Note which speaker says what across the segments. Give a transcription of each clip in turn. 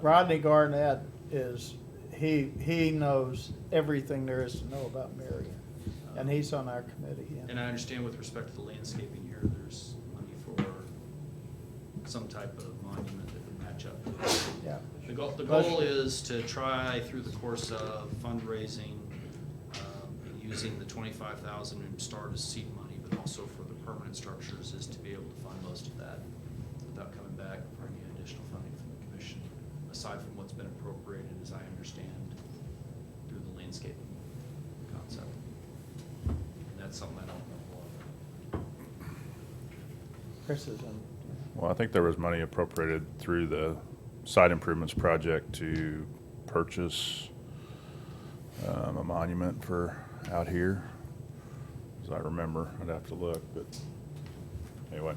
Speaker 1: Rodney Garnett is, he, he knows everything there is to know about Marion. And he's on our committee. and-
Speaker 2: And I understand with respect to the landscaping here, there's money for some type of monument that would match up.
Speaker 1: Yeah.
Speaker 2: The goal, the
Speaker 1: Plus-
Speaker 2: goal is to try through the course of fundraising, um, and using the twenty-five thousand in start as seed money, but also for the permanent structures is to be able to fund most of that without coming back for any additional funding from the commission, aside from what's been appropriated, as I understand, through the landscaping concept. And that's something I don't know a lot about.
Speaker 1: Chris is in.
Speaker 3: Well, I think there was money appropriated through the site improvements project to purchase um, a monument for out here, as I remember. I'd have to look, but anyway.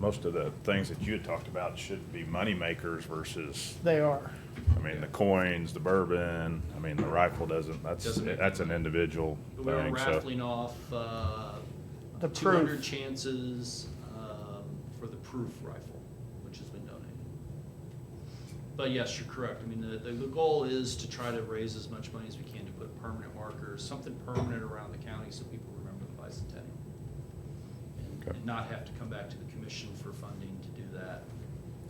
Speaker 3: Most of the things that you had talked about should be moneymakers versus,
Speaker 1: They are.
Speaker 3: I mean, the coins, the bourbon, I mean, the rifle doesn't, that's,
Speaker 2: Doesn't make-
Speaker 3: that's an individual
Speaker 2: We were
Speaker 3: thing, so.
Speaker 2: raffling off uh,
Speaker 1: The
Speaker 2: 200
Speaker 1: proof.
Speaker 2: chances um, for the proof rifle, which has been donated. But yes, you're correct. I mean, the, the the goal is to try to raise as much money as we can to put permanent markers, something permanent around the county so people remember the bicentennial. And-
Speaker 3: Okay.
Speaker 2: And not have to come back to the commission for funding to do that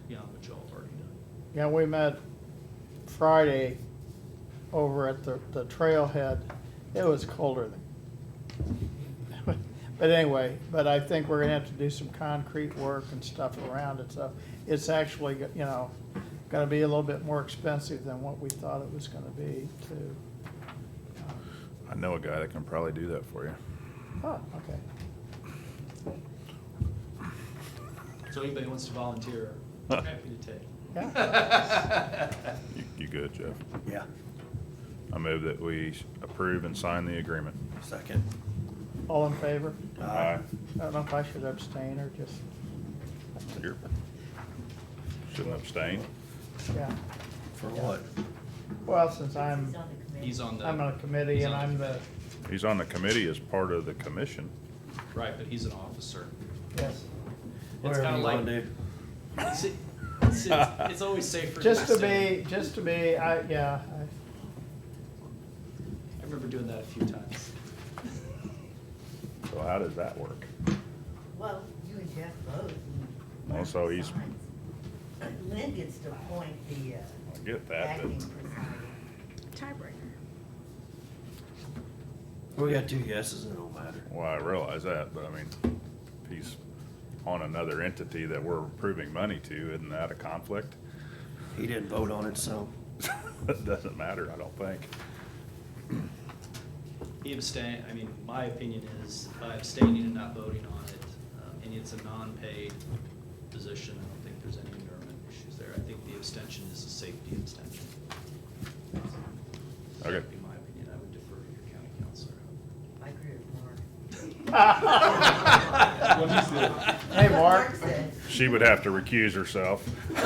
Speaker 2: beyond what y'all have already done.
Speaker 1: Yeah, we met Friday over at the, the trailhead. It was colder than. But anyway, but I think we're gonna have to do some concrete work and stuff around it, so it's actually, you know, gonna be a little bit more expensive than what we thought it was gonna be too.
Speaker 3: I know a guy that can probably do that for you.
Speaker 1: Oh, okay.
Speaker 2: So anybody wants to volunteer, I'm happy to take.
Speaker 1: Yeah,
Speaker 3: You, you good, Jeff?
Speaker 4: Yeah,
Speaker 3: I move that we approve and sign the agreement.
Speaker 4: second.
Speaker 1: all in favor?
Speaker 3: Aye.
Speaker 1: I don't know if I should abstain or just,
Speaker 3: Here. Shouldn't abstain.
Speaker 1: yeah.
Speaker 4: For what?
Speaker 1: Well, since I'm,
Speaker 5: He's
Speaker 2: He's on
Speaker 5: on the committee.
Speaker 2: the.
Speaker 1: I'm on a committee
Speaker 2: he's
Speaker 1: and
Speaker 2: on the
Speaker 1: I'm the,
Speaker 3: He's on the committee as part of the commission.
Speaker 2: Right, but he's an officer.
Speaker 1: yes.
Speaker 2: It's
Speaker 4: Whatever
Speaker 2: kind of
Speaker 4: you wanna
Speaker 2: like,
Speaker 4: do.
Speaker 2: it's, it's, it's always safer.
Speaker 1: Just to
Speaker 2: stay.
Speaker 1: be, just to be, I, yeah,
Speaker 2: I remember doing that a few times.
Speaker 3: So how does that work?
Speaker 5: Well, you and Jeff both. and
Speaker 3: Also, he's-
Speaker 5: signs. Lynn gets to appoint the
Speaker 3: I
Speaker 5: uh,
Speaker 3: get that,
Speaker 5: acting
Speaker 3: but
Speaker 5: presiding.
Speaker 6: Tiebreaker.
Speaker 4: We got two yeses, it don't matter.
Speaker 3: well, I realize that, but I mean, if he's on another entity that we're approving money to, isn't that a conflict?
Speaker 4: He didn't vote on it, so.
Speaker 3: It doesn't matter, I don't think.
Speaker 2: He abstain, I mean, my opinion is by abstaining and not voting on it, um, and it's a non-paid position, I don't think there's any endearment issues there. I think the abstention is a safety abstention.
Speaker 3: Okay.
Speaker 2: That'd be my opinion. I would defer to your county counselor.
Speaker 5: I agree with Mark.
Speaker 1: I. Hey, Mark,
Speaker 5: said,
Speaker 3: She would have to recuse herself.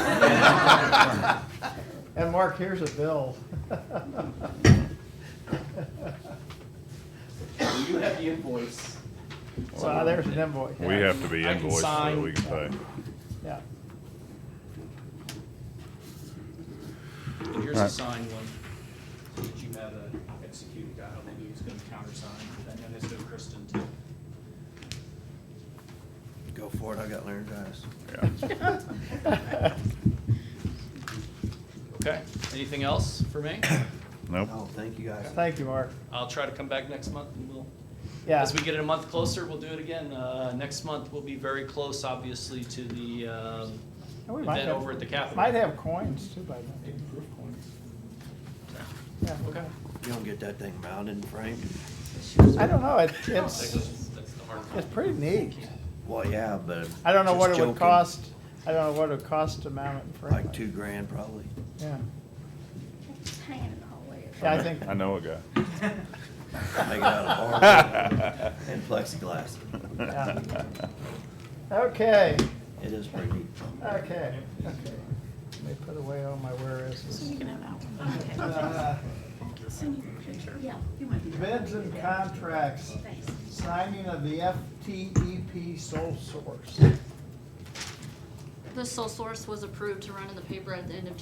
Speaker 1: and Mark, here's a bill.
Speaker 2: You have the invoice.
Speaker 1: So uh, there's an invoice.
Speaker 3: We have to be
Speaker 2: I can
Speaker 3: invoiced so that
Speaker 2: sign.
Speaker 3: we can pay.
Speaker 1: Yeah,
Speaker 2: And here's a
Speaker 3: Alright.
Speaker 2: signed one, so that you have a executed guy, maybe who's gonna countersign, and then this to Kristen too.
Speaker 4: Go for it, I got laryngitis.
Speaker 3: Yeah.
Speaker 2: Okay, anything else for me?
Speaker 3: Nope.
Speaker 4: No, thank you guys.
Speaker 1: thank you, Mark.
Speaker 2: I'll try to come back next month and we'll,
Speaker 1: Yeah,
Speaker 2: as we get it a month closer, we'll do it again. Uh, next month, we'll be very close, obviously, to the, um,
Speaker 1: And we might
Speaker 2: event
Speaker 1: have-
Speaker 2: over at the Capitol.
Speaker 1: might have coins too by then. Yeah.
Speaker 2: Okay.
Speaker 4: You don't get that thing mounted and framed?
Speaker 1: I don't know, it-
Speaker 2: That's,
Speaker 1: it's,
Speaker 2: that's the hard part.
Speaker 1: it's pretty neat.
Speaker 4: Well, yeah, but.
Speaker 1: I don't know
Speaker 4: just
Speaker 1: what it would
Speaker 4: joking.
Speaker 1: cost, I don't know what it would cost to mount it in front.
Speaker 4: Like two grand probably.
Speaker 1: Yeah,
Speaker 6: Just hanging in the hallway.
Speaker 1: Yeah, I think-
Speaker 3: I know a guy.
Speaker 4: Make it out of hardwood and plexiglass.
Speaker 1: okay,
Speaker 4: It is pretty neat.
Speaker 1: okay, okay. Let me put away all my where
Speaker 6: So
Speaker 1: is.
Speaker 6: you can have that one. Okay.
Speaker 1: Uh,
Speaker 6: Send you a picture. Yeah, you might be. right.
Speaker 1: Bids and contracts,
Speaker 6: Thanks.
Speaker 1: signing of the FTEP sole source.
Speaker 7: The sole source was approved to run in the paper at the end of